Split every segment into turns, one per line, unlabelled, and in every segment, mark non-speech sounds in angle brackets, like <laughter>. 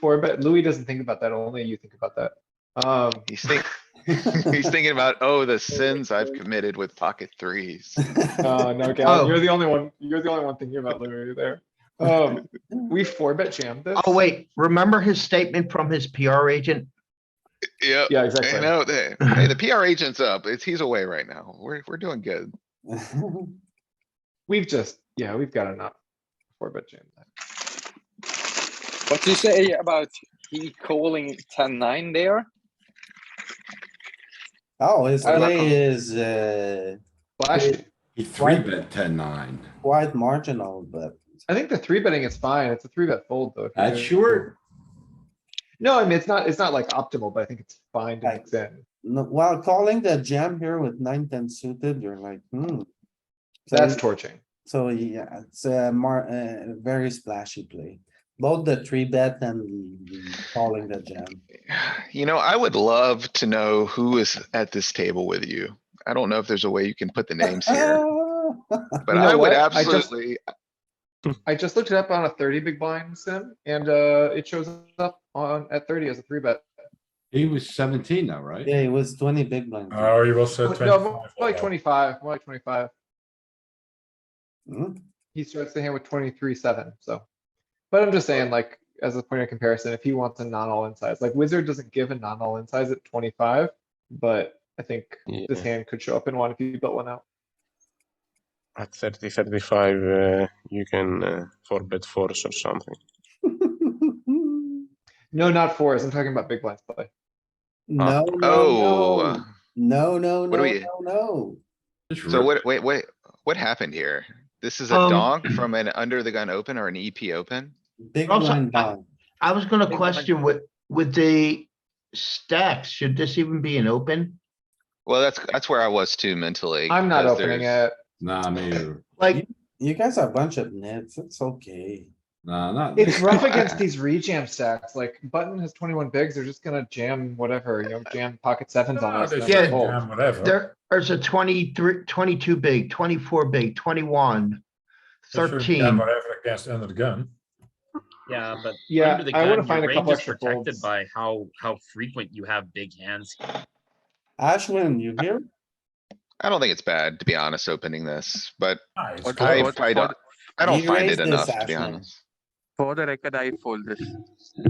four bet. Louis doesn't think about that. Only you think about that. Um,
He's think, he's thinking about, oh, the sins I've committed with pocket threes.
oh
<laughs>
no,
Oh.
Galen, you're the only one. You're the only one thinking about Louis there.
<laughs>
Um, we four bet jammed this.
Oh, wait, remember his statement from his PR agent?
Yep.
Yeah,
I
exactly.
know that. Hey, the PR agent's up. It's, he's away right now. We're, we're doing good.
We've just yeah, we've got enough four bet jam. that.
What do you say about he calling 10 9 there?
Oh, his
I like
play is, uh,
Flash.
He three bet ten nine.
quite marginal, but
I think the three betting is fine. It's a three bet fold though. if you
That's
do.
short.
No, I mean it's not. It's not like optimal, but I think it's fine to mix in.
no, while calling the jam here with nine, ten suited, you're like, hmm. So
That's
you-
torching.
So, yeah, it's a more, uh, very splashy play, both the three bet and the calling the jam.
You know, I would love to know who is at this table with you. I don't know if there's a way you can put the names here,
Ah,
but
Uh, You
I
know
would
what? I just-
absolutely,
I just looked it up on a thirty big blind sim, and uh, it shows up on at thirty as a three bet.
He was seventeen though, right?
Yeah, it was twenty big blind.
Oh, you also
No, more like nou,
25.
twenty-five. More like twenty-five.
Hmm? <laughs>
He starts the hand with twenty-three seven. So, but I'm just saying, like as a point of comparison, if he wants a non-all in size, like wizard doesn't give a non-all in size at twenty-five, but I think this hand could show up in one if you built one out.
At 30, 35, uh, you can uh, four bet force or something.
No, not fours. I'm talking about big blinds play.
No, no,
oh.
no, no, no,
What
no,
do we-
no, no.
Just
So what,
rip.
wait, wait, what happened here? This is a
Um,
donk from an under the gun open or an EP open?
Big
Also,
blind
I-
blind.
I was gonna question with, with the stacks, should this even be an open?
Well, that's, that's where I was too mentally.
I'm not
because
opening
there's-
it.
Nah, maybe,
Like,
You guys are a bunch of nits, it's okay.
nah, not.
It's rough <laughs> against these rejam stacks. Like button has twenty-one bigs. They're just gonna jam whatever, you know, jam pocket sevens on us. and
They
then
can
fold.
jam Whatever.
there, there's a 23, 22 big, twenty-four big, twenty-one,
They should jam
thirteen.
Whatever against under the gun.
Yeah, but
Yeah,
under the
I wanna
gun,
find a
your range
couple
is
extra
protected
folds.
by how, how frequent you have big hands.
Ashwin, you here?
I don't think it's bad, to be honest, opening this, but
Ah, it's
I,
close. <laughs>
I don't, I don't
You
find
raised
it
this,
enough, to be
Ashley.
honest.
For the record, I fold this.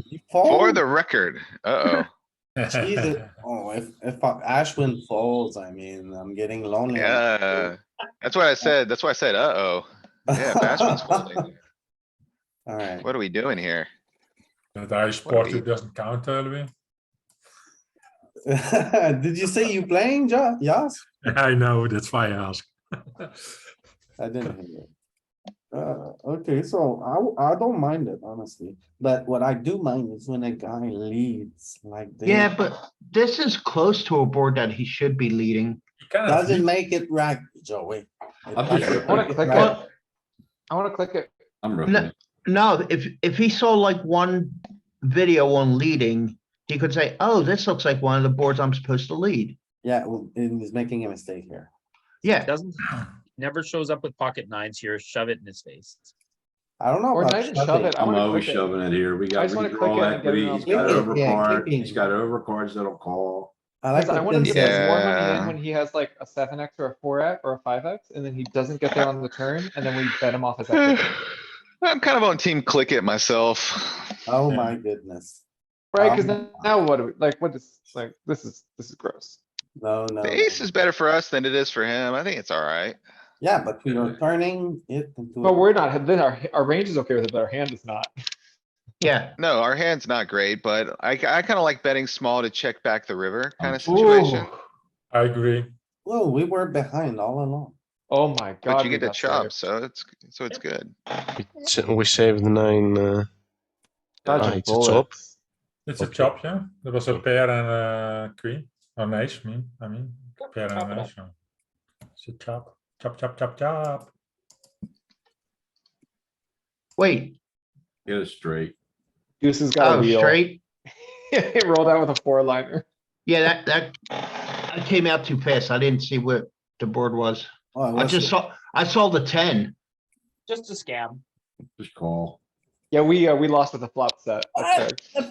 You
For
fold?
the record, uh-oh,
Jesus. Oh, if, if I- Ashwin folds, I mean, I'm getting lonely.
yeah, that's what I said, that's why I said, uh-oh. Yeah, Bashman's folding.
Alright,
What are we doing here?
That Irish
What do
porter
you-
doesn't count, uh, Louis.
<laughs> did you say you playing, Jo- Yas?
<laughs> I know, that's why I ask. <laughs>
I didn't hear you. Uh, okay, so I, w- I don't mind it, honestly, but what I do mind is when a guy leads like this.
Yeah, but this is close to a board that he should be leading.
You cannot
Doesn't
lead-
make it right, Joey. It
I'm just
doesn't
ripping.
I wanna
make it
click
right.
it. I wanna click it.
I'm ripping it.
No, if, if he saw like one video on leading, he could say, oh, this looks like one of the boards I'm supposed to lead.
Yeah, well, and he's making a mistake here.
Yeah,
Doesn't, never shows up with pocket nines here, shove it in his face.
I don't know.
Or
about
not even shove
shoving.
it. I
I'm
wanna
always
click it.
shoving it here. We
I
got
just wanna click it
withdrawal
and get it
equity.
on
He's got
the- Yeah,
overcard.
clicking.
He's got overcards that'll call.
I
Cause
like
I
what
wanna
Tim
see this
said.
more money in
Yeah.
when he has like a seven X or a four X or a five X, and then he doesn't get there on the turn, and then we bet him off his equity.
<laughs> <sighs> I'm kind of on team click it myself.
Oh my goodness.
Right, cause
Um,
now what, do we like, what is, like, this is, this is gross.
No, no.
The ace
no.
is better for us than it is for him. I think it's alright.
Yeah, but we are turning it into. a-
But we're not, then our, our range is okay with it, but our hand is not.
yeah.
No, our hand's not great, but I, I kinda like betting small to check back the river kinda
Ooh,
situation.
I agree.
Well, we were behind all along.
oh my god.
But you
we
get
got
to
there.
chop, so it's, so it's good.
So we saved nine. Uh,
Dodging
ah, it's a top.
bullets.
It's a
Okay.
chop, yeah? There was a pair and a queen, or an ace, mean, I mean, pair and an ace. yeah. It's a chop, chop, chop, chop, chop.
Wait,
Get it straight.
Deuce has got a
oh,
wheel. <laughs>
straight?
It rolled out with a four liner.
Yeah, that, that, that came out too fast. I didn't see where the board was.
Oh, it
I
was-
just saw, I saw the ten.
Just a scam.
Just call.
Yeah, we, uh, we lost with the flop set. That's
What?
correct.